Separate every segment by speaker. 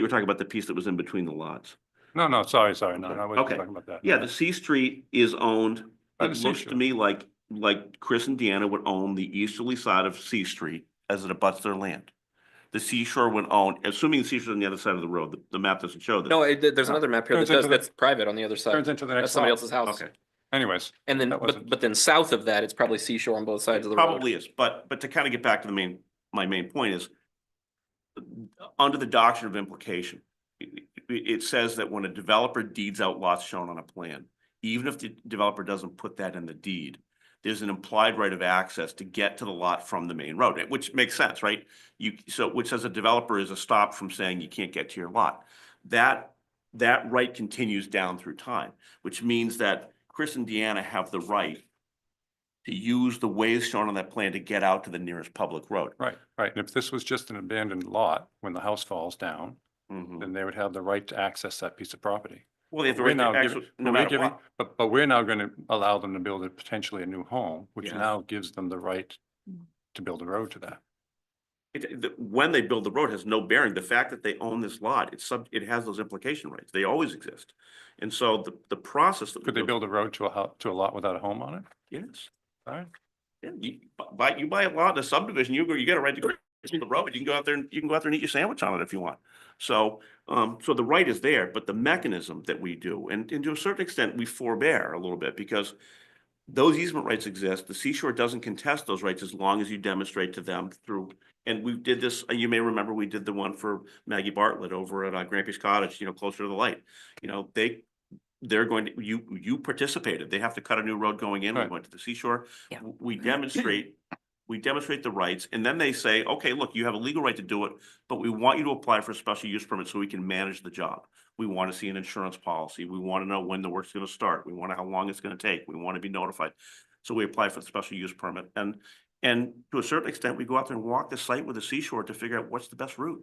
Speaker 1: You were talking about the piece that was in between the lots.
Speaker 2: No, no, sorry, sorry, no, no, I wasn't
Speaker 1: Okay.
Speaker 2: talking about that.
Speaker 1: Yeah, the C Street is owned,
Speaker 2: By
Speaker 1: it
Speaker 2: the
Speaker 1: looks to
Speaker 2: seashore.
Speaker 1: me like, like Chris and Deanna would own the easterly side of C Street as it abuts their land. The seashore would own, assuming the seashore's on the other side of the road, the- the map doesn't show that.
Speaker 3: No, it, there- there's another map here that
Speaker 2: Oh. Turns
Speaker 3: does,
Speaker 2: into the-
Speaker 3: that's private on the other
Speaker 2: Turns
Speaker 3: side.
Speaker 2: into the
Speaker 3: That's
Speaker 2: next
Speaker 3: somebody
Speaker 2: lot.
Speaker 3: else's house.
Speaker 1: Okay,
Speaker 2: Anyways,
Speaker 3: And then,
Speaker 2: That
Speaker 3: but,
Speaker 2: wasn't-
Speaker 3: but then south of that, it's probably seashore on both sides of the road.
Speaker 1: probably is, but, but to kind of get back to the main, my main point is under the doctrine of implication, it, it says that when a developer deeds out lots shown on a plan, even if the developer doesn't put that in the deed, there's an implied right of access to get to the lot from the main road, which makes sense, right? You, so, which says a developer is a stop from saying you can't get to your lot. That, that right continues down through time, which means that Chris and Deanna have the right to use the ways shown on that plan to get out to the nearest public road.
Speaker 2: right, right. And if this was just an abandoned lot, when the house falls down,
Speaker 1: Mhm.
Speaker 2: then they would have the right to access that piece of property.
Speaker 1: Well, they have the
Speaker 2: Mm-hmm. We're
Speaker 1: right
Speaker 2: now
Speaker 1: to
Speaker 2: giving-
Speaker 1: access, no
Speaker 2: but we're
Speaker 1: matter
Speaker 2: giving-
Speaker 1: what.
Speaker 2: But, but we're now going to allow them to build a potentially a new home, which
Speaker 1: Yeah.
Speaker 2: now gives them the right to build a road to that.
Speaker 1: It, the, when they build the road has no bearing. The fact that they own this lot, it's sub, it has those implication rights. They always exist. And so the, the process. that we
Speaker 2: Could they build a road to a house, to a lot without a home on it?
Speaker 1: Yes.
Speaker 2: All right,
Speaker 1: Yeah, you, bu- buy, you buy a lot in a subdivision, you, go- you got a right to go to the road, you can go out there and, you can go out there and eat your sandwich on it if you want. So, um, so the right is there, but the mechanism that we do, and, and to a certain extent, we forbear a little bit because those easement rights exist, the seashore doesn't contest those rights as long as you demonstrate to them through, and we did this, uh, you may remember, we did the one for Maggie Bartlett over at uh, Grampy's Cottage, you know, closer to the light. You know, they, they're going to, you, you participated, they have to cut a new road going in, we
Speaker 2: Right.
Speaker 1: went to the seashore,
Speaker 4: Yeah.
Speaker 1: w- we demonstrate, we demonstrate the rights, and then they say, okay, look, you have a legal right to do it, but we want you to apply for a special use permit so we can manage the job. We want to see an insurance policy, we want to know when the work's going to start, we want to how long it's going to take, we want to be notified. So we apply for the special use permit, and, and to a certain extent, we go out there and walk the site with the seashore to figure out what's the best route.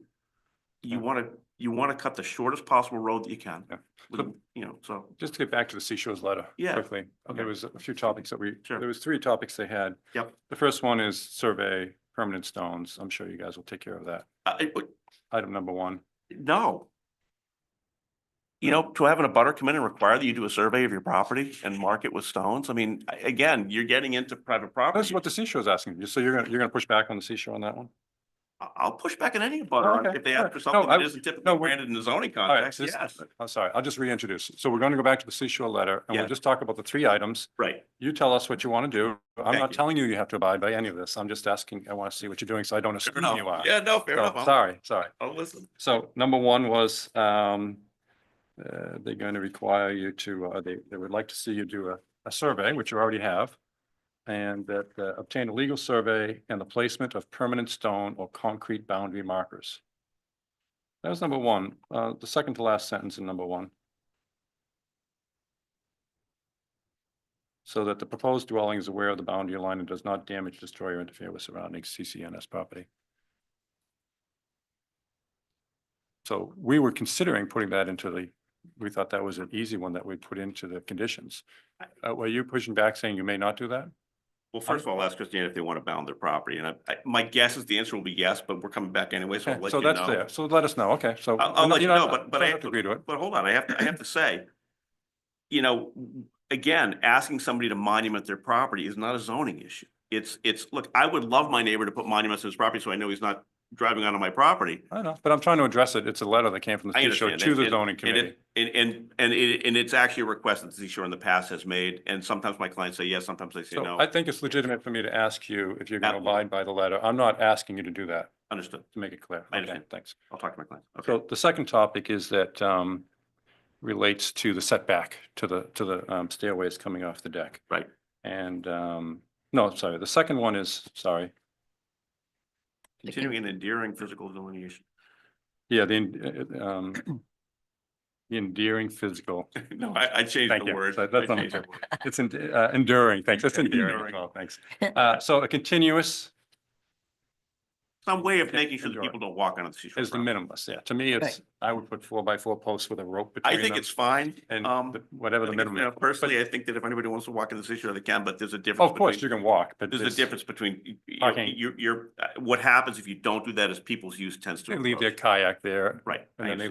Speaker 1: You
Speaker 2: Yeah.
Speaker 1: want to, you want to cut the shortest possible road that you can,
Speaker 2: Yeah.
Speaker 1: with- you know, so,
Speaker 2: just to get back to the seashores letter
Speaker 1: Yeah,
Speaker 2: quickly.
Speaker 1: okay.
Speaker 2: There was a few topics that we,
Speaker 1: Sure.
Speaker 2: there was three topics they had.
Speaker 1: Yep.
Speaker 2: The first one is survey permanent stones. I'm sure you guys will take care of that.
Speaker 1: uh, it-
Speaker 2: Item number one.
Speaker 1: No. You know, to have an abutter come in and require that you do a survey of your property and mark it with stones, I mean, a- again, you're getting into private
Speaker 2: That's
Speaker 1: property.
Speaker 2: what the seashore is asking. you. So you're gonna, you're gonna push back on the seashore on that one?
Speaker 1: I- I'll push back on any abutter on-
Speaker 2: Okay,
Speaker 1: if they
Speaker 2: all
Speaker 1: ask
Speaker 2: right.
Speaker 1: for
Speaker 2: No,
Speaker 1: something that
Speaker 2: I-
Speaker 1: isn't
Speaker 2: no,
Speaker 1: typically
Speaker 2: we're-
Speaker 1: granted in the zoning
Speaker 2: All right,
Speaker 1: context,
Speaker 2: this-
Speaker 1: Uh, yes,
Speaker 2: I'm sorry, I'll just reintroduce. So we're going to go back to the seashore letter and
Speaker 1: Yeah.
Speaker 2: we'll just talk about the three items.
Speaker 1: right.
Speaker 2: You tell us what you want to do. I'm
Speaker 1: Thank
Speaker 2: not
Speaker 1: you.
Speaker 2: telling you you have to abide by any of this. I'm just asking, I want to see what you're doing, so I don't
Speaker 1: Fair
Speaker 2: assume you
Speaker 1: enough.
Speaker 2: are.
Speaker 1: Yeah, no, fair
Speaker 2: So,
Speaker 1: enough. I'll-
Speaker 2: Sorry, sorry.
Speaker 1: I'll listen.
Speaker 2: So number one was, um, uh, they're going to require you to, uh, they, they would like to see you do a, a survey, which you already have. And that uh, obtain a legal survey and the placement of permanent stone or concrete boundary markers. That was number one, uh, the second to last sentence in number one. So that the proposed dwelling is aware of the boundary line and does not damage, destroy or interfere with surrounding CCNS property. So we were considering putting that into the, we thought that was an easy one that we'd put into the conditions. Uh, were you pushing back saying you may not do that?
Speaker 1: Well, first of all, I'll ask Christiane if they want to bound their property, and I, I- my guess is the answer will be yes, but we're coming back anyway, so I'll
Speaker 2: Okay,
Speaker 1: let
Speaker 2: So
Speaker 1: you
Speaker 2: that's
Speaker 1: know.
Speaker 2: there. So let us know. Okay, so.
Speaker 1: I'll- I'll
Speaker 2: you're
Speaker 1: let you
Speaker 2: not-
Speaker 1: know, but- but
Speaker 2: don't
Speaker 1: I-
Speaker 2: have to Agree to it.
Speaker 1: But hold on, I have to, I have to say, you know, again, asking somebody to monument their property is not a zoning issue. It's, it's, look, I would love my neighbor to put monuments on his property so I know he's not driving onto my property.
Speaker 2: I know, but I'm trying to address it. It's a letter that came from the
Speaker 1: I
Speaker 2: CSO
Speaker 1: understand.
Speaker 2: to the
Speaker 1: And-
Speaker 2: zoning
Speaker 1: And
Speaker 2: committee.
Speaker 1: it, and, and, and it, and it's actually a request that the seashore in the past has made, and sometimes my clients say yes, sometimes they say
Speaker 2: So
Speaker 1: no.
Speaker 2: I think it's legitimate for me to ask you if you're going to
Speaker 1: Absolutely.
Speaker 2: abide by the letter. I'm not asking you to do that,
Speaker 1: Understood.
Speaker 2: to make it clear.
Speaker 1: I
Speaker 2: Okay,
Speaker 1: understand.
Speaker 2: thanks.
Speaker 1: I'll talk to my client. Okay,
Speaker 2: So the second topic is that um, relates to the setback to the, to the um, stairways coming off the deck.
Speaker 1: Right.
Speaker 2: And, um, no, sorry, the second one is, sorry,
Speaker 1: continuing and endearing physical delineation.
Speaker 2: yeah, the en- uh, um, the endearing physical,
Speaker 1: No, I, I changed
Speaker 2: Thank
Speaker 1: the
Speaker 2: you.
Speaker 1: word.
Speaker 2: That- that's
Speaker 1: I
Speaker 2: not-
Speaker 1: changed the word.
Speaker 2: it's en- uh, enduring, thanks, it's endearing as
Speaker 1: Enduring.
Speaker 2: well, thanks. Uh, So a continuous
Speaker 1: Some way of making sure that
Speaker 2: Enduring.
Speaker 1: people don't walk onto the seashore.
Speaker 2: is the
Speaker 1: property.
Speaker 2: minimalist, yeah, to me, it's, I would put four by four posts with a rope between
Speaker 1: I
Speaker 2: them.
Speaker 1: think it's fine.
Speaker 2: And
Speaker 1: um,
Speaker 2: the-
Speaker 1: I
Speaker 2: whatever the
Speaker 1: think it's-
Speaker 2: minimum.
Speaker 1: you know,
Speaker 2: but-
Speaker 1: Personally, I think that if anybody wants to walk in this issue, they can, but there's a difference.
Speaker 2: Oh, Of course, you
Speaker 1: between-
Speaker 2: can walk, but.
Speaker 1: There's a
Speaker 2: it's-
Speaker 1: difference between, you- you know,
Speaker 2: Parking.
Speaker 1: you're, you're, uh, what happens if you don't do that is people's use tends to.
Speaker 2: They leave their
Speaker 1: encroach.
Speaker 2: kayak there
Speaker 1: Right. I
Speaker 2: And then they